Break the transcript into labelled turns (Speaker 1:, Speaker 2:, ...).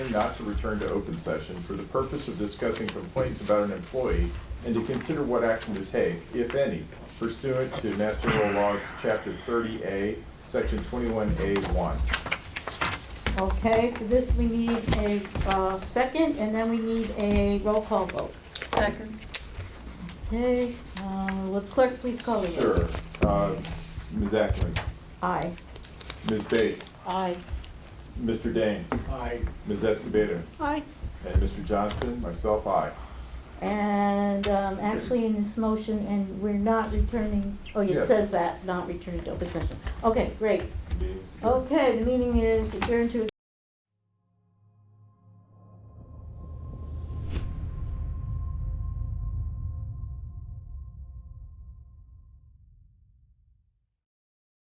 Speaker 1: not to return to open session for the purpose of discussing complaints about an employee and to consider what action to take, if any, pursuant to Master General Laws, Chapter thirty A, Section twenty-one A one.
Speaker 2: Okay, for this, we need a uh, second, and then we need a roll call vote.
Speaker 3: Second.
Speaker 2: Okay, uh, will clerk please call the roll?
Speaker 1: Sure. Uh, Ms. Ackman,
Speaker 2: Aye.
Speaker 1: Ms. Bates,
Speaker 3: Aye.
Speaker 1: Mr. Dane,
Speaker 4: Aye.
Speaker 1: Ms. Escobedo,
Speaker 2: Aye.
Speaker 1: and Mr. Johnson, myself, I.
Speaker 2: And um, actually, in this motion, and we're not returning, oh, it
Speaker 1: Yes.
Speaker 2: says that, not returning to open session. Okay, great. Oh,
Speaker 1: Meeting's adjourned.
Speaker 2: Okay, the meeting is adjourned to